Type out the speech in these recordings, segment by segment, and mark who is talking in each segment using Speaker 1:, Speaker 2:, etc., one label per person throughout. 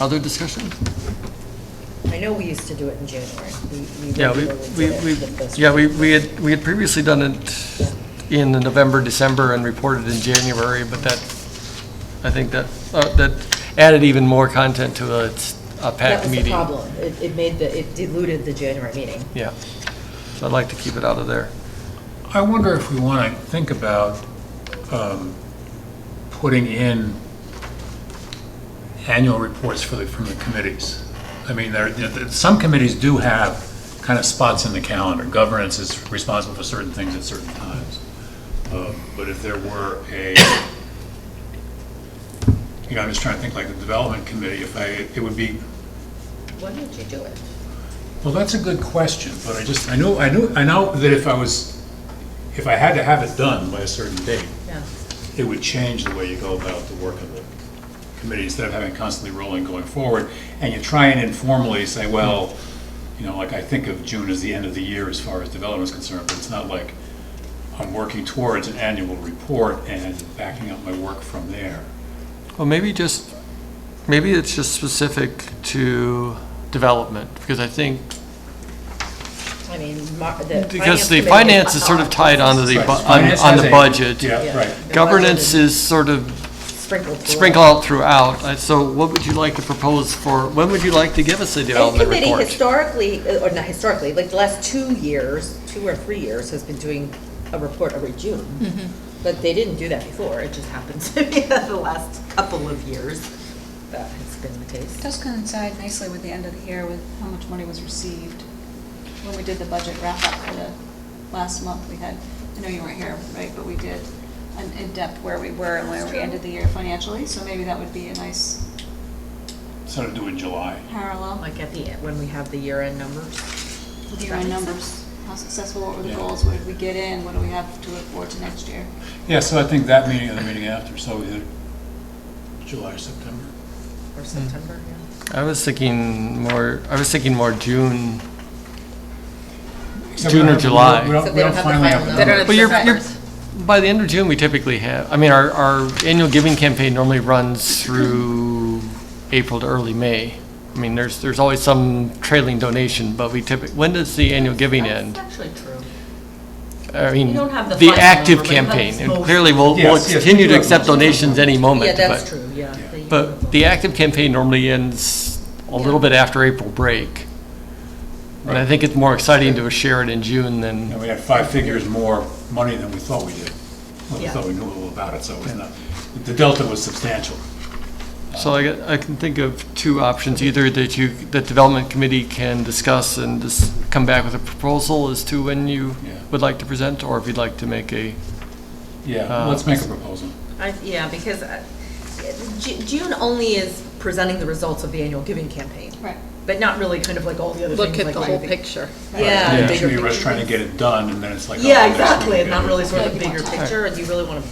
Speaker 1: Other discussion?
Speaker 2: I know we used to do it in January. We- we
Speaker 1: Yeah, we,
Speaker 2: regularly
Speaker 1: we,
Speaker 2: did it
Speaker 1: we,
Speaker 2: the first
Speaker 1: yeah,
Speaker 2: week.
Speaker 1: we, we had, we had previously done it in November, December, and reported in January, but that, I think that, uh, that added even more content to a, a
Speaker 2: That
Speaker 1: packed
Speaker 2: was the
Speaker 1: meeting.
Speaker 2: problem. It, it made the, it diluted the January meeting.
Speaker 1: Yeah, so I'd like to keep it out of there.
Speaker 3: I wonder if we want to think about um, putting in annual reports for the, from the committees. I mean, there, you know, th- some committees do have kind of spots in the calendar. Governance is responsible for certain things at certain times. Um, But if there were a, you know, I'm just trying to think like the development committee, if I, it would be
Speaker 2: When did you do it?
Speaker 3: well, that's a good question, but I just, I know, I know, I know that if I was, if I had to have it done by a certain date,
Speaker 2: Yeah.
Speaker 3: it would change the way you go about the work of the committee, instead of having constantly rolling going forward, and you try and informally say, well, you know, like, I think of June as the end of the year as far as development is concerned, but it's not like I'm working towards an annual report and backing up my work from there.
Speaker 1: Well, maybe just, maybe it's just specific to development, because I think,
Speaker 2: I mean, Mar- the.
Speaker 1: because the
Speaker 2: committee-
Speaker 1: finance is sort of tied onto the, bu-
Speaker 3: Right.
Speaker 1: on,
Speaker 3: Finance
Speaker 1: on
Speaker 3: has
Speaker 1: the
Speaker 3: a-
Speaker 1: budget.
Speaker 3: Yeah, right.
Speaker 2: the
Speaker 1: Governance
Speaker 2: budget
Speaker 1: is sort of
Speaker 2: Sprinkled. throughout.
Speaker 1: sprinkle out throughout. Uh, So what would you like to propose for, when would you like to give us a
Speaker 2: And
Speaker 1: development
Speaker 2: committee
Speaker 1: report?
Speaker 2: historically, uh, or not historically, like the last two years, two or three years, has been doing a report every June. But they didn't do that before. It just happens to be that the last couple of years that has been the
Speaker 4: It
Speaker 2: case.
Speaker 4: does coincide nicely with the end of the year with how much money was received. When we did the budget wrap-up for the last month, we had, I know you weren't here, right, but we did an in-depth where we were and where we ended the year financially, so maybe that would be a nice
Speaker 3: Instead of doing July.
Speaker 4: parallel
Speaker 2: Like at the, end when we have the year-end numbers.
Speaker 4: with your own numbers. How successful, what were the
Speaker 3: Yeah.
Speaker 4: goals, what did we get in, what do we have to look forward to next year?
Speaker 3: Yeah, so I think that meeting and the meeting after, so either July, September.
Speaker 2: Or September, yeah.
Speaker 1: I was thinking more, I was thinking more June.
Speaker 3: Except
Speaker 1: June or
Speaker 3: we don't-
Speaker 1: July.
Speaker 3: We don't, we don't finally have the number.
Speaker 1: But you're, you're, by the end of June, we typically have, I mean, our, our annual giving campaign normally runs through April to early May. I mean, there's, there's always some trailing donation, but we typically, when does the annual giving end?
Speaker 2: actually true.
Speaker 1: I
Speaker 2: You
Speaker 1: mean,
Speaker 2: don't have the
Speaker 1: the
Speaker 2: final
Speaker 1: active
Speaker 2: number, but that's
Speaker 1: campaign. And
Speaker 2: most-
Speaker 1: clearly, we'll, we'll
Speaker 3: Yes, yes, we
Speaker 1: continue
Speaker 3: do
Speaker 1: to
Speaker 3: have
Speaker 1: accept
Speaker 3: most.
Speaker 1: donations any
Speaker 2: Yeah,
Speaker 1: moment, but.
Speaker 2: that's true, yeah.
Speaker 3: Yeah.
Speaker 2: The-
Speaker 1: But the active campaign normally ends a little bit after April break. And I
Speaker 3: Right.
Speaker 1: think it's more exciting to share it in June than,
Speaker 3: And we had five figures more money than we thought we did. Well, we
Speaker 2: Yeah.
Speaker 3: thought we knew a little about it, so it was not, the delta was substantial.
Speaker 1: so I, got- I can think of two options, either that you, that development committee can discuss and just come back with a proposal as to when you
Speaker 3: Yeah.
Speaker 1: would like to present, or if you'd like to make a,
Speaker 3: Yeah,
Speaker 1: Ah.
Speaker 3: let's make a proposal.
Speaker 2: I, yeah, because uh, Ju- June only is presenting the results of the annual giving campaign,
Speaker 4: Right.
Speaker 2: but not really kind of like all the other things.
Speaker 5: Look at
Speaker 2: like
Speaker 5: the
Speaker 2: why
Speaker 5: whole
Speaker 2: we-
Speaker 5: picture.
Speaker 2: Yeah.
Speaker 1: Yeah.
Speaker 2: the bigger
Speaker 3: Usually we're just
Speaker 2: picture.
Speaker 3: trying to get it done, and then it's like. oh,
Speaker 2: Yeah,
Speaker 3: next week
Speaker 2: exactly,
Speaker 3: we
Speaker 2: and
Speaker 3: gotta
Speaker 2: not
Speaker 3: do
Speaker 2: really
Speaker 3: it.
Speaker 2: sort of
Speaker 4: Yeah,
Speaker 2: the
Speaker 4: you
Speaker 2: bigger
Speaker 4: want
Speaker 2: picture, and you really want to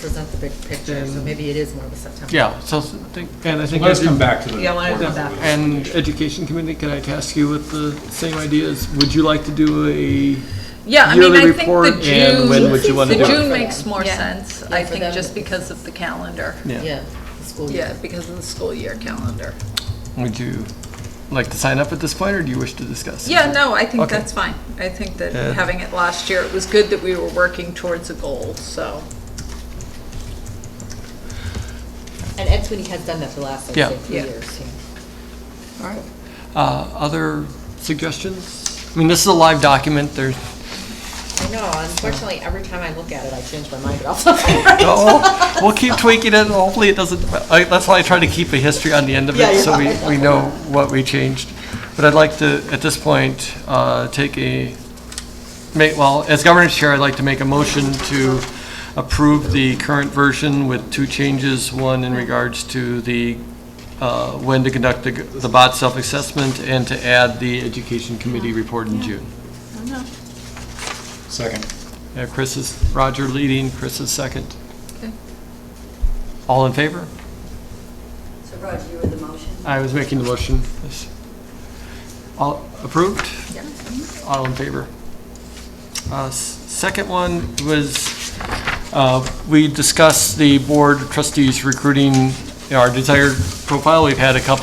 Speaker 2: present the big picture, so maybe it is more of a September.
Speaker 1: yeah, so, I think- and I think.
Speaker 3: Let's come back to the.
Speaker 2: Yeah, I wanna
Speaker 3: report
Speaker 2: come back.
Speaker 3: with-
Speaker 1: And education committee, can I task you with the same ideas? Would you like to do a
Speaker 5: Yeah, I mean,
Speaker 1: Yearly
Speaker 5: I think the
Speaker 1: report, and when would you
Speaker 5: June,
Speaker 1: wanna
Speaker 2: do
Speaker 5: the
Speaker 2: it?
Speaker 5: June makes more
Speaker 2: Yeah.
Speaker 5: sense,
Speaker 2: Yeah,
Speaker 5: I
Speaker 2: for
Speaker 5: think,
Speaker 2: them.
Speaker 5: just because of the calendar.
Speaker 2: Yeah, the school
Speaker 5: Yeah,
Speaker 2: year.
Speaker 5: because of the school year calendar.
Speaker 1: Would you like to sign up at this point, or do you wish to discuss?
Speaker 5: Yeah, no, I think
Speaker 1: Okay.
Speaker 5: that's fine. I think that
Speaker 1: Yeah.
Speaker 5: having it last year, it was good that we were working towards a goal, so.
Speaker 2: And Ed Sweeney has done that for the last, I'd
Speaker 1: Yeah.
Speaker 2: say, few
Speaker 5: Yeah.
Speaker 2: years.
Speaker 1: All right. Uh, Other suggestions? I mean, this is a live document, there's,
Speaker 2: I know, unfortunately, every time I look at it, I change my mind about something.
Speaker 1: oh, we'll keep tweaking it, and hopefully it doesn't, I- that's why I try to keep a history on the end of
Speaker 2: Yeah,
Speaker 1: it,
Speaker 2: you're
Speaker 1: so we, we know what we changed. But I'd like to, at this point, uh, take a, make, well, as governance chair, I'd like to make a motion to approve the current version with two changes, one in regards to the, uh, when to conduct the, the bot self-assessment, and to add the education committee report in June.
Speaker 3: Second.
Speaker 1: Yeah, Chris is, Roger leading, Chris is second.
Speaker 5: Okay.
Speaker 1: All in favor?
Speaker 6: So Roger, you were the motion?
Speaker 1: I was making the motion. Yes. All approved? All in favor? Uh, s- Second one was, uh, we discussed the board trustees recruiting our desired profile. We've had a couple